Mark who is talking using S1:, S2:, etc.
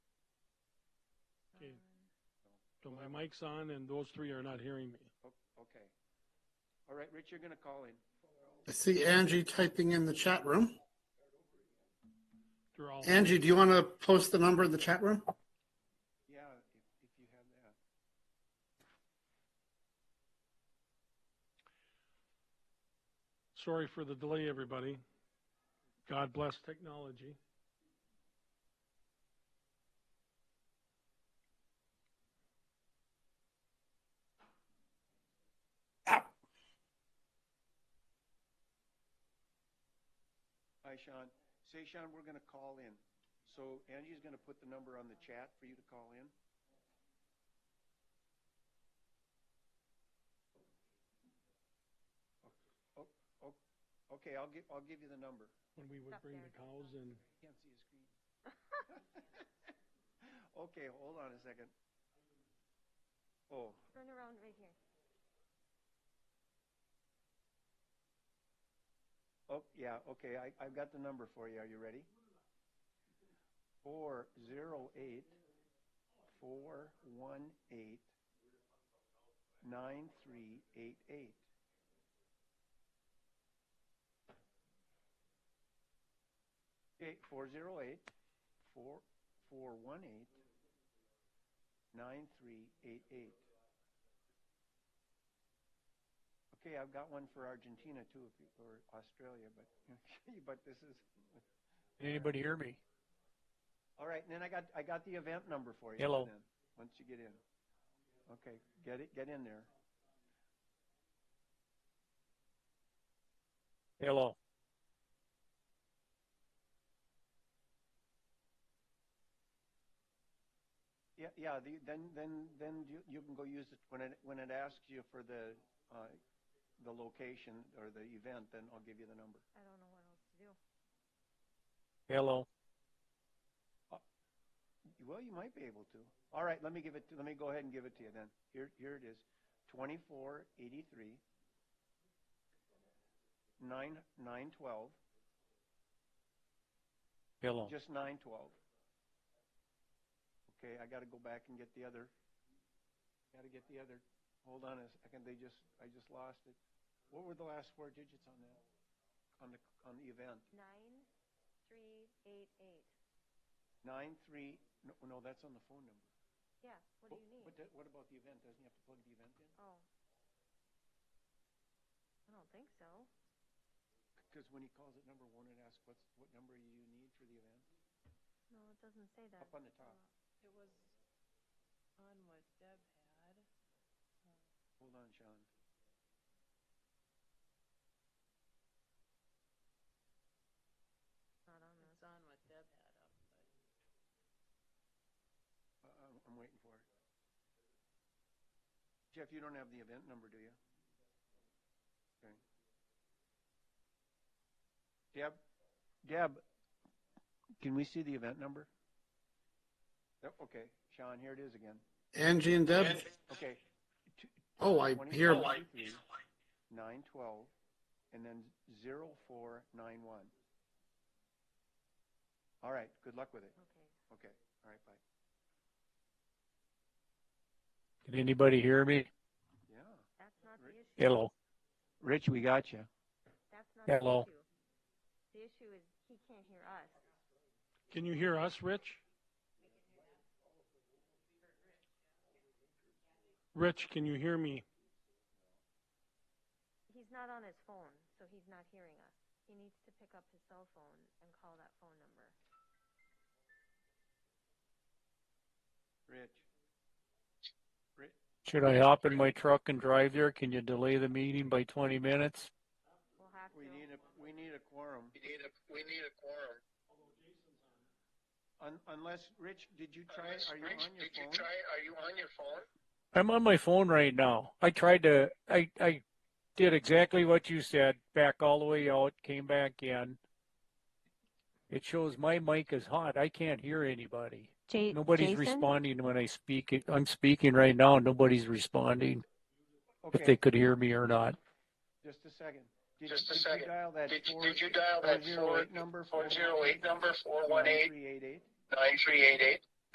S1: So my mic's on and those three are not hearing me.
S2: O- Okay. All right, Rich, you're going to call in.
S3: I see Angie typing in the chat room.
S1: They're all.
S3: Angie, do you want to post the number in the chat room?
S2: Yeah, if, if you have that.
S1: Sorry for the delay, everybody. God bless technology.
S2: Hi, Sean. Say, Sean, we're going to call in. So Angie's going to put the number on the chat for you to call in. O- o- o- Okay, I'll give, I'll give you the number.
S1: When we would
S4: Up
S1: bring
S4: there.
S1: the cows in.
S2: Can't see his screen. Okay, hold on a second. Oh,
S4: Turn around right here.
S2: oh, yeah, okay, I, I've got the number for you. Are you ready? Four zero eight, four one eight, nine three eight eight. Eight, four zero eight, four, four one eight, nine three eight eight. Okay, I've got one for Argentina too, if you, or Australia, but, but this is,
S5: Anybody hear me?
S2: all right, and then I got, I got the event number for you.
S5: Hello.
S2: then, Once you get in. Okay, get it, get in there.
S5: Hello.
S2: Yeah, yeah, the, then, then, then you, you can go use it, when it, when it asks you for the, uh, the location or the event, then I'll give you the number.
S4: I don't know what else to do.
S5: Hello.
S2: Well, you might be able to. All right, let me give it, to- let me go ahead and give it to you then. Here, here it is. Twenty-four eighty-three, nine, nine twelve,
S5: Hello.
S2: just nine twelve. Okay, I gotta go back and get the other, gotta get the other. Hold on a second, they just, I just lost it. What were the last four digits on that, on the, on the event?
S4: Nine, three, eight, eight.
S2: Nine, three, no, no, that's on the phone number.
S4: Yeah, what do you need?
S2: What, the- what about the event? Doesn't he have to plug the event in?
S4: Oh. I don't think so.
S2: Because when he calls it number one, it asks what's, what number you need for the event?
S4: No, it doesn't say that. Oh,
S2: Up on the top.
S6: It was on what Deb had.
S2: Hold on, Sean.
S4: It's Not on this.
S6: It's on what Deb had up, but.
S2: I- Uh, I'm, I'm waiting for it. Jeff, you don't have the event number, do you? Okay. Deb, Deb, can we see the event number? Yep, Okay, Sean, here it is again.
S3: Angie and Deb?
S2: Okay,
S3: Oh, I hear.
S2: Nine twelve, and then zero four nine one. All right, good luck with it.
S4: Okay.
S2: Okay, all right, bye.
S5: Can anybody hear me?
S2: Yeah.
S4: That's not the issue.
S5: Hello.
S2: Rich, we got you.
S4: That's not the
S5: Hello.
S4: issue. The issue is he can't hear us.
S1: Can you hear us, Rich? Rich, can you hear me?
S4: He's not on his phone, so he's not hearing us. He needs to pick up his cell phone and call that phone number.
S2: Rich. Rich,
S5: Should I hop in my truck and drive there? Can you delay the meeting by 20 minutes?
S4: We'll have
S2: we
S4: to.
S2: need a, we need a quorum.
S7: We need a, we need a quorum.
S2: Un, unless, Rich, did you try, are you
S7: Rich,
S2: on your
S7: did you
S2: phone?
S7: try, are you on your phone?
S5: I'm on my phone right now. I tried to, I, I did exactly what you said, back all the way out, came back in. It shows my mic is hot. I can't hear anybody.
S4: J-
S5: Nobody's responding when I speak. I'm speaking right now. Nobody's responding if they
S2: Okay,
S5: could hear me or not.
S2: just a second. Did-
S7: Just a
S2: did you
S7: second.
S2: Dial that
S7: Did,
S2: four.
S7: did you dial that
S2: 408
S7: four,
S2: number?
S7: four zero eight number four one eight
S2: 9388?
S7: nine three eight eight?